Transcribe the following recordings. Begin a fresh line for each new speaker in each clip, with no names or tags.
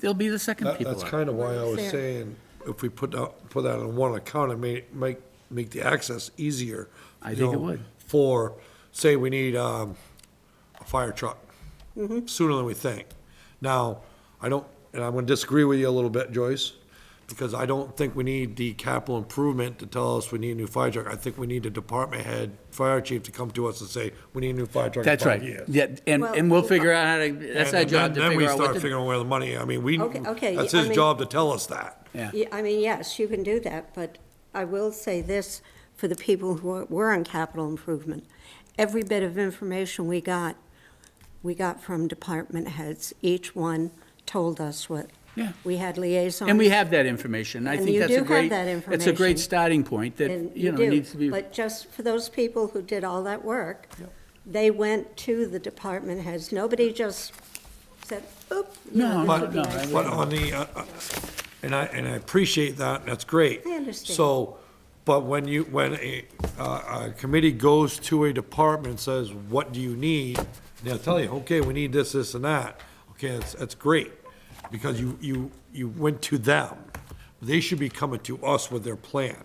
they'll be the second
That-
people.
That's
up.
kind of why I was
Fair.
saying, if we put out, put that on one account, it may, make, make the access easier.
I
you
think it
know,
would.
For, say we need, um, a fire truck,
Mm-hmm.
sooner than we think. Now, I don't, and I'm gonna disagree with you a little bit, Joyce, because I don't think we need the capital improvement to tell us we need a new fire truck. I think we need a department head, fire chief to come to us and say, we need a new fire truck in
That's
five
right.
years.
Yeah, and, and we'll figure out how to, that's
And
our job
then-
to
Then we
figure out
start
what to.
figuring where the money, I mean, we,
Okay, okay,
that's
I
his
mean-
job to tell us that.
Yeah.
Yeah, I mean, yes, you can do that, but I will say this for the people who are- were on capital improvement. Every bit of information we got, we got from department heads. Each one told us what.
Yeah.
We had liaisons.
And we have that information. I
And
think
you
that's
do
a
have
great,
that
that's a
information.
great starting point that,
and
you know,
do.
needs to be.
But just for those people who did all that work, they went to the department heads. Nobody just said, oop. you know,
No,
this
no,
would be
no,
nice."
I
But on the, uh, uh, and I, and I appreciate that, and that's great.
I understand.
So, but when you, when a, uh, a committee goes to a department, and says, what do you need? They'll tell you, okay, we need this, this, and that. Okay, that's, that's great, because you, you, you went to them. They should be coming to us with their plan.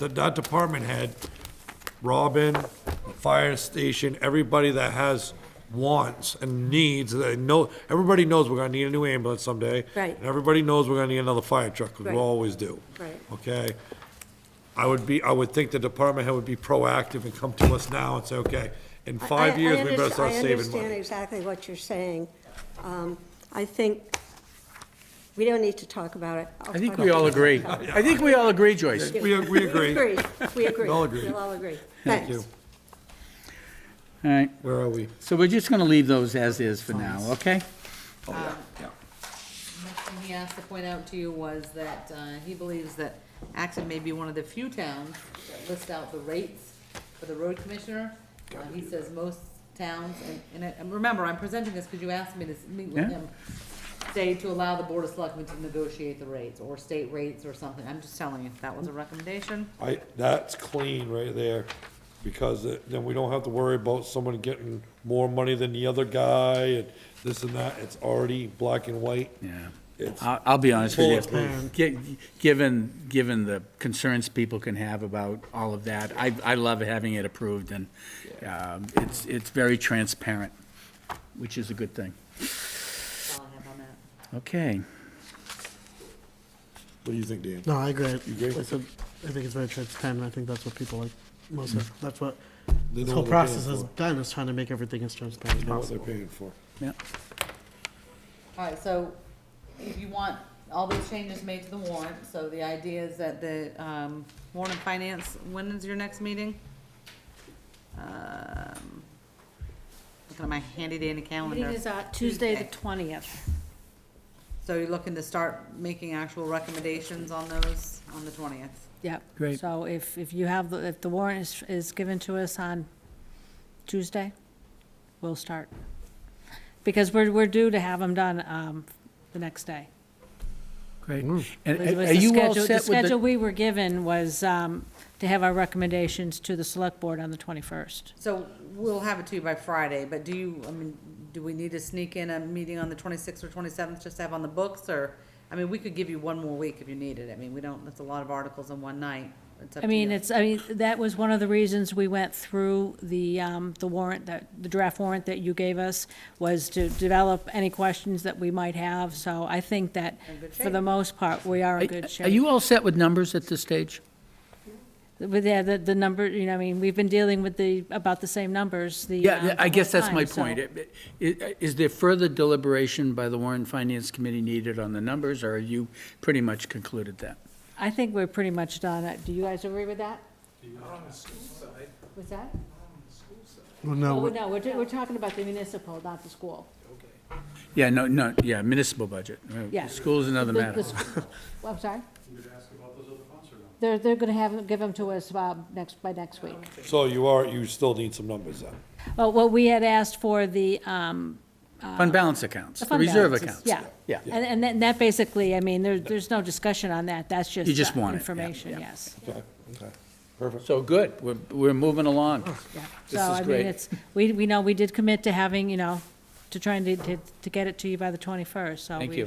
That, that department head, Robin, fire station, everybody that has wants and needs, they know, everybody knows we're gonna need a new ambulance someday.
Right.
And everybody knows we're gonna need another fire truck, 'cause
Right.
we always do.
Right.
Okay? I would be, I would think the department head would be proactive and come to us now and say, okay, in
I-
five
I- I
years, we better
underst-
start
I
saving
understand
money.
exactly what you're saying. Um, I think, we don't need to talk about it.
I think we all agree. I think we all agree, Joyce.
We, we agree.
Agree, we agree.
We all agree.
We'll all agree.
Thank you.
Thanks.
All right,
Where are we?
so we're just gonna leave those as is for now, okay?
Oh, yeah, yeah.
Next thing he asked to point out to you was that uh, he believes that Acton may be one of the few towns that list out the rates for the road commissioner. Uh, He says most towns, and- and, I- and remember, I'm presenting this because you asked me to s- meet with
Yeah.
him, say to allow the board of selectmen to negotiate the rates, or state rates or something. I'm just telling you, that was a recommendation.
I, that's clean right there, because it- then we don't have to worry about someone getting more money than the other guy, and this and that, it's already black and white.
Yeah. Uh,
It's
I'll, I'll be honest with you.
Bulletproof.
Gi- Given, given the concerns people can have about all of that, I, I love having it approved and um, it's, it's very transparent, which is a good thing.
That's all I have on that.
Okay.
What do you think, Dan?
No, I agree. I
agree?
said- I think it's very transparent. I think that's what people like most of, that's what
Mm-hmm. They
this
know
whole
what they're paying
process has
for.
done, is trying to make everything as transparent as
Know what they're
possible.
paying for.
Yeah.
All right, so if you want all those changes made to the warrant, so the idea is that the, um, warrant and finance, when is your next meeting? Um, Looking at my handy dandy
Meeting
calendar.
is uh, Tuesday, the 20th.
So you're looking to start making actual recommendations on those on the twentieth?
Yep.
Great.
So if, if you have, the- if the warrant is, is given to us on Tuesday, we'll start. Because we're, we're due to have them done, um, the next day.
Great. And
It
are
was
are
the
you all
schedule-
set
The
with
schedule
the?
we were given was, um, to have our recommendations to the select board on the twenty-first.
So we'll have it to you by Friday, but do you, I mean, do we need to sneak in a meeting on the twenty-sixth or twenty-seventh just to have on the books, or? I mean, we could give you one more week if you needed, I mean, we don't, that's a lot of articles in one night. It's up
I
to
mean,
you.
it's, I mean, that was one of the reasons we went through the, um, the warrant, that, the draft warrant that you gave us, was to develop any questions that we might have, so I think that,
In good
for the
shape.
most part, we are in good
Are are
shape.
you all set with numbers at this stage?
With the, the- the number, you know, I mean, we've been dealing with the, about the same numbers, the. um,
Yeah, I
the
guess
whole
that's my
time, so-
point. It- it- Is there further deliberation by the Warren Finance Committee needed on the numbers, or have you pretty much concluded that?
I think we're pretty much done. Uh, Do you guys agree with that? What's that?
Well,
Oh,
no, we-
no, we're, we're talking about the municipal, not the school.
Yeah, no, no, yeah, municipal budget. Uh,
Yeah.
School's another
The-
matter.
the sc- well, I'm sorry? They're, they're gonna have, give them to us, uh next, by next
Oh,
week.
So you are, you still need some numbers then?
Well, what we had asked for the, um,
Fund balance accounts,
the
the
fund
reserve
balances,
accounts.
Yeah.
Yeah.
And, and then that basically, I mean, there, there's no discussion on that. That's just.
You just
uh,
want it, yeah, yeah.
Information, yes.
Okay, okay, perfect.
So good, we're, we're moving along.
Yeah.
This
So,
is
I mean,
great.
it's, we, we know, we did commit to having, you know, to trying to, to, to get it to you by the twenty-first, so.
Thank
we-
you.